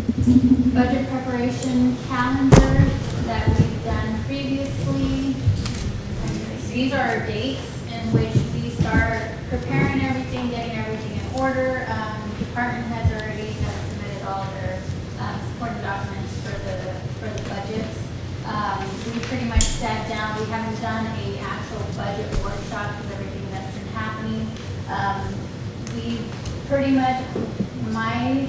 budget preparation calendar that we've done previously. And These are our dates in which we start preparing everything, getting everything in order. Um, Department heads already have submitted all their um, supporting documents for the, for the budgets. Um, We pretty much sat down, we haven't done a actual budget workshop because everything that's been happening. Um, we pretty much, my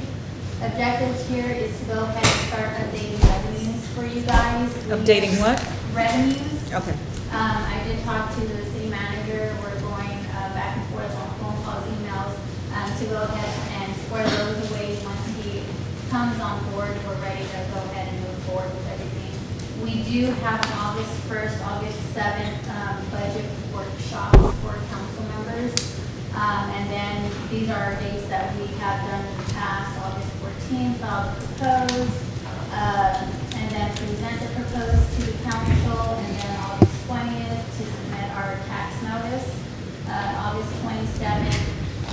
objective here is to go ahead and start updating revenues for you guys. We- Updating what? Revenues. Okay. Um, I did talk to the city manager, we're going, uh, back and forth on phone calls, emails, um, to go ahead and square those away once he comes on board, we're ready to go ahead and move forward with everything. We do have an August first, August seventh, um, budget workshop for council members. Um, and then these are our dates that we have done in the past, August fourteenth, I'll propose, uh, and then present the proposed to the council, and then August twentieth to submit our tax notice. Uh, August twenty-seventh,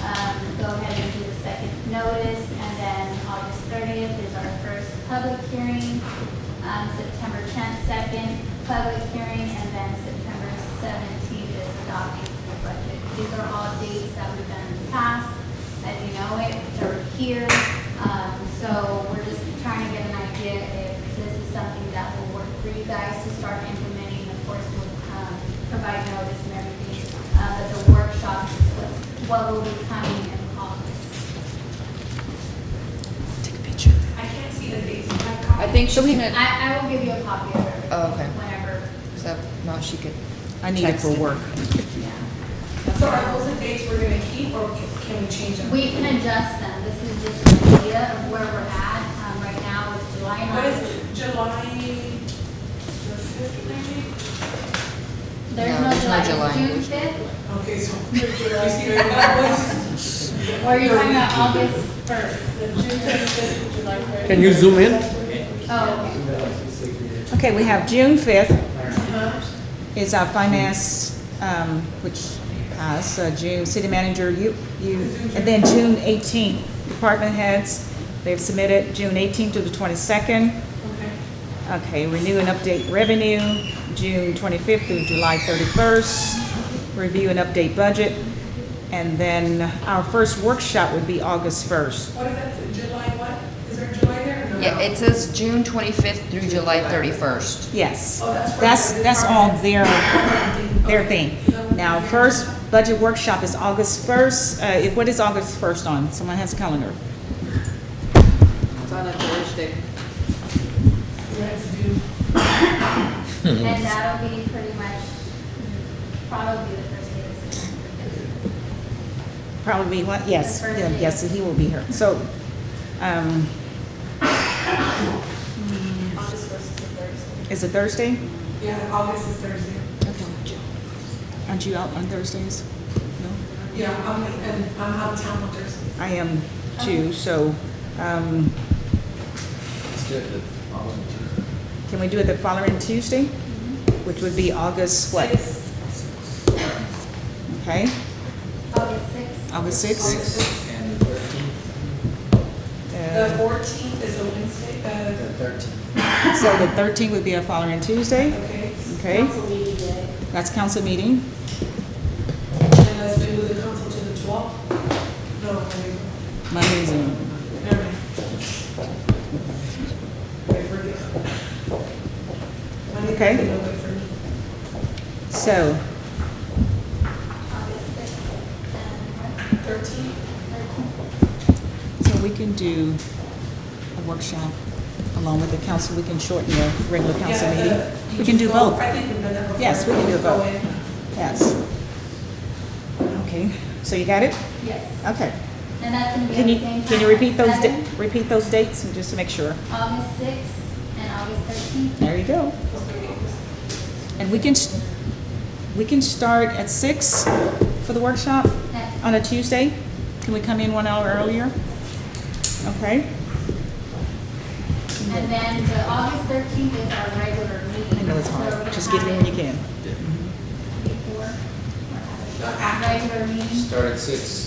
um, go ahead and do the second notice, and then August thirtieth is our first public hearing. Um, September tenth, second public hearing, and then September seventeenth is adopting the budget. These are all dates that we've done in the past, as you know it, they're here. Um, so we're just trying to get an idea if this is something that will work for you guys to start implementing. Of course, we'll, um, provide notice and everything, uh, but the workshops is what's, what will be coming in August. Take a picture. I can't see the dates. Do you have I copies? think she's gonna, I, I will give you a copy of it. Oh, okay. Whenever, so, no, she could. I need it text for work. yeah. So are those the dates we're gonna keep or ca- can we change them? We can adjust them. This is just an idea of where we're at. Um, right now it's July What is ninth. it, July the fifth maybe? There's No, no there's no July, July. June fifth. Okay, so. You see where that was? Or you're talking about August first? Can you zoom in? Oh, Okay, we have June fifth is our finance, um, which, uh, so June, city manager, you, you, and then June eighteenth, department heads, they've submitted June eighteenth to the twenty-second. Okay. Okay, renew and update revenue, June twenty-fifth through July thirty-first. Review and update budget. And then our first workshop would be August first. What is that, July what? Is there July there or no? Yeah, it says June twenty-fifth through July thirty-first. Yes. Oh, that's for That's, the that's all their, their thing. Okay. Now, first budget workshop is August first. Uh, if- what is August first on? Someone has a calendar. It's on a Thursday. Let's do- Hmm. and that'll be pretty much mm, probably the first day of September. Probably what? Yes, The first yeah, day. yes, he will be here. So, um, August first is a Thursday. is it Thursday? Yeah, August is Thursday. Aren't you out on Thursdays? No? Yeah, I'm, and I'm out of town on Thursday. I am too, so, um, can we do it the following Tuesday? Which would be August what? Six, Okay, August sixth, August sixth? Six and the thirteenth, The Uh, fourteenth is a Wednesday, the uh, thirteenth. So the thirteenth would be a following Tuesday, okay. okay? That's council meeting. Unless we move the council to the twelfth? No, we- Monday's in. never mind. Wait, we're good. Monday, Okay. no, wait for me. So, August sixth, and Thirteen? so we can do a workshop along with the council. We can shorten the regular council Yeah, meeting. uh, you We can do both. I think we've done that before. Yes, we can do Go both. in. Yes. Okay, so you got it? yes, Okay. and that's gonna be at Can the you, same time. can you repeat those, da- seven, repeat those dates and just to make sure? August sixth and August thirteenth. There you go. And we can, s- we can start at six for the workshop on a Tuesday? Can we come in one hour earlier? Okay? And then the August thirteenth is our regular I meeting. know it's so hard, we're gonna just get have it when you can. Before, or No, after. regular meeting. Start at six,